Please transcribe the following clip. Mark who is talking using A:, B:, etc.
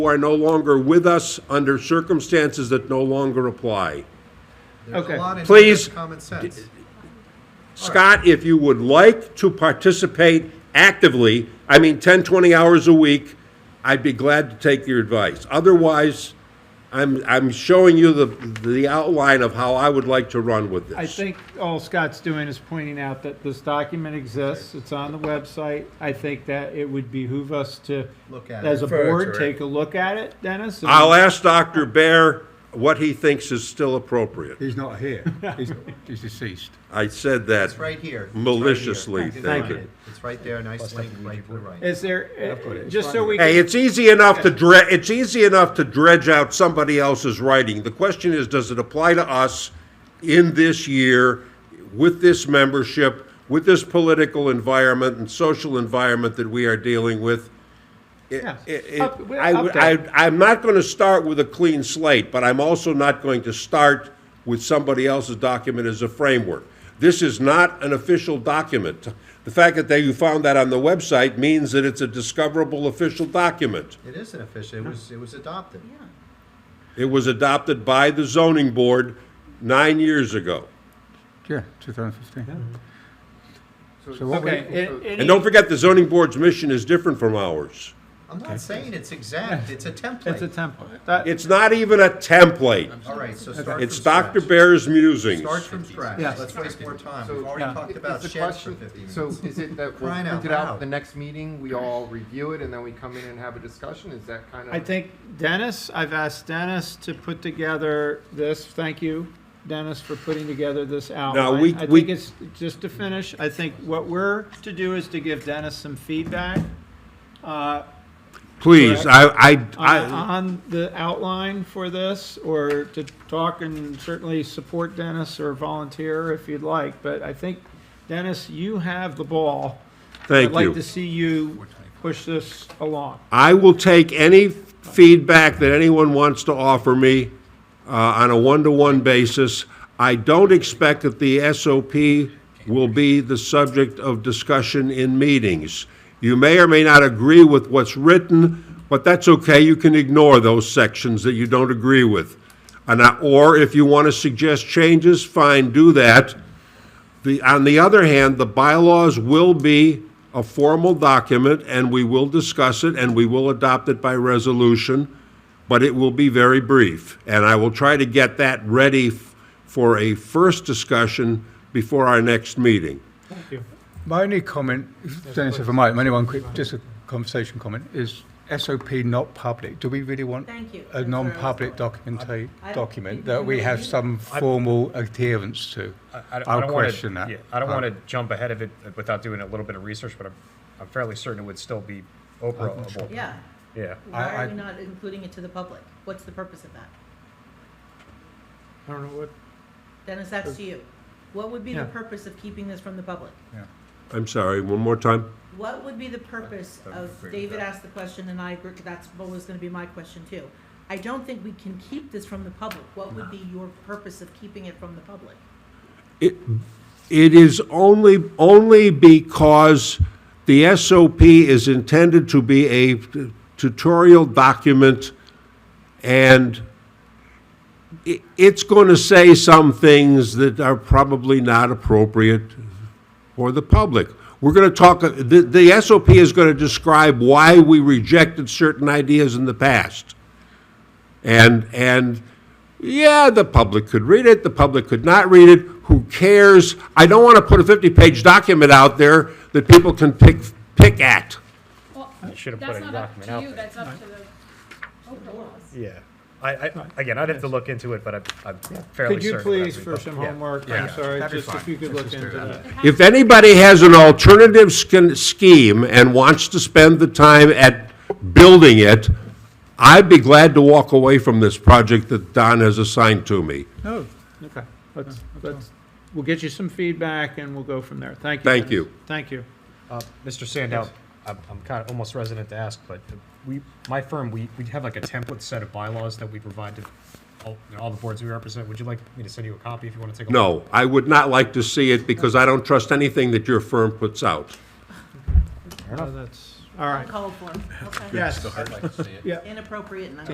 A: who are no longer with us under circumstances that no longer apply.
B: There's
C: Okay.
B: a lot in
A: Please.
B: here that's common sense.
A: Scott, if you would like to participate actively, I mean, 10, 20 hours a week, I'd be glad to take your advice. Otherwise, I'm, I'm showing you the, the outline of how I would like to run with this.
C: I think all Scott's doing is pointing out that this document exists, it's on the website. I think that it would behoove us to,
B: Look at it.
C: as a
D: Refer to
C: board,
D: it.
C: take a look at it, Dennis. and-
A: I'll ask Dr. Bear what he thinks is still appropriate.
E: He's not here. He's, he's deceased.
A: I said that
B: It's right here. It's right here.
A: maliciously,
B: can
A: thank
B: find
A: you.
B: it. It's right there, nice link right to the right.
C: Is there, just so we
A: Hey,
C: can,
A: it's easy enough to dredge, it's easy enough to dredge out somebody else's writing. The question is, does it apply to us in this year, with this membership, with this political environment and social environment that we are dealing with? It-
C: Yes.
A: it- it-
C: Up- we're
A: I
C: up
A: would-
C: there.
A: I, I'm not going to start with a clean slate, but I'm also not going to start with somebody else's document as a framework. This is not an official document. The fact that they, you found that on the website means that it's a discoverable official document.
B: It is an official, it was, it was adopted.
A: It was adopted by the zoning board nine years ago.
E: Yeah, 2015. So what
C: okay.
E: we,
C: a- any-
A: And don't forget, the zoning board's mission is different from ours.
B: I'm not saying it's exact, it's a
C: It's a
B: template.
C: template. That-
A: It's not even a template.
B: All right, so start from
A: It's Dr.
B: scratch.
A: Bear's musings.
B: Start from scratch,
C: Yes.
B: let's waste more time,
F: So-
B: we've already
C: Yeah.
B: talked
F: Is
B: about
F: the
B: sheds for
F: question-
B: fifty
F: So
B: minutes.
F: is it that we'll
B: Crying
F: print
B: out
F: it out
B: loud.
F: at the next meeting, we all review it, and then we come in and have a discussion? Is that kind of?
C: I think Dennis, I've asked Dennis to put together this, thank you, Dennis, for putting together this outline.
A: we-
C: I
A: we-
C: think it's, just to finish, I think what we're to do is to give Dennis some feedback uh,
A: Please, I, I,
C: on
A: I,
C: on the outline for this, or to talk and certainly support Dennis or volunteer if you'd like, but I think, Dennis, you have the ball.
A: thank you.
C: I'd like to see you push this along.
A: I will take any feedback that anyone wants to offer me uh, on a one-to-one basis. I don't expect that the SOP will be the subject of discussion in meetings. You may or may not agree with what's written, but that's okay. You can ignore those sections that you don't agree with. And I- Or if you want to suggest changes, fine, do that. The, on the other hand, the bylaws will be a formal document, and we will discuss it, and we will adopt it by resolution, but it will be very brief. And I will try to get that ready f- for a first discussion before our next meeting.
E: my only comment, Dennis, if I might, my only one quick, just a conversation comment, is SOP not public? Do we really want
G: Thank
E: a
G: you. That's where I was
E: non-public
G: going.
E: document,
G: I-
E: document
G: I-
E: that we have some formal adherence to?
H: I don't- I
E: I'll
H: don't wanna-
E: question that.
H: yeah, I don't
E: Uh,
H: want to jump ahead of it without doing a little bit of research, but I'm, I'm fairly certain it would still be operable.
G: Yeah.
H: Yeah.
G: Why
E: I-
G: are we not including it to the public? What's the purpose of that?
C: I don't know what.
G: Dennis, that's to you. What would be
C: Yeah.
G: the purpose of keeping this from the public?
A: I'm sorry, one more time?
G: What would be the purpose of, David asked the question and I agree, that's what was gonna be my question too. I don't think we can keep this from the public. What would be your purpose of keeping it from the public?
A: It, it is only, only because the SOP is intended to be a tutorial document, and i- it's going to say some things that are probably not appropriate for the public. We're going to talk, the, the SOP is going to describe why we rejected certain ideas in the past. And, and, yeah, the public could read it, the public could not read it, who cares? I don't want to put a 50-page document out there that people can pick, pick at.
I: Well,
H: should have put
I: that's
H: a
I: not up
H: document
I: to
H: out
I: you,
H: there.
I: that's up to the Oprah laws.
H: Yeah. I, I, again, I'd have to look into it, but I'm, I'm fairly
C: Could you
H: certain.
C: please,
H: that'd be-
C: for some
H: yeah.
C: homework, I'm sorry,
E: That'd be
C: just if
E: fine.
C: you could
E: Let's
C: look
E: just do
C: into
E: that.
C: that.
A: If anybody has an alternative sch- scheme and wants to spend the time at building it, I'd be glad to walk away from this project that Don has assigned to me.
E: No,
C: Okay, let's, let's, we'll get you some feedback and we'll go from there. Thank you.
A: Thank
C: Dennis.
A: you.
C: Thank you.
H: Uh, Mr. Sandow, I'm, I'm kind of almost resident to ask, but we, my firm, we, we have like a template set of bylaws that we provide to all, you know, all the boards we represent. Would you like me to send you a copy if you want to take a
A: No,
H: look?
A: I would not like to see it because I don't trust anything that your firm puts out.
C: Uh, That's, all right.
G: Uncalled for, okay.
C: Yes,
B: I'd like to see it.
C: yeah.
G: Inappropriate and uncalled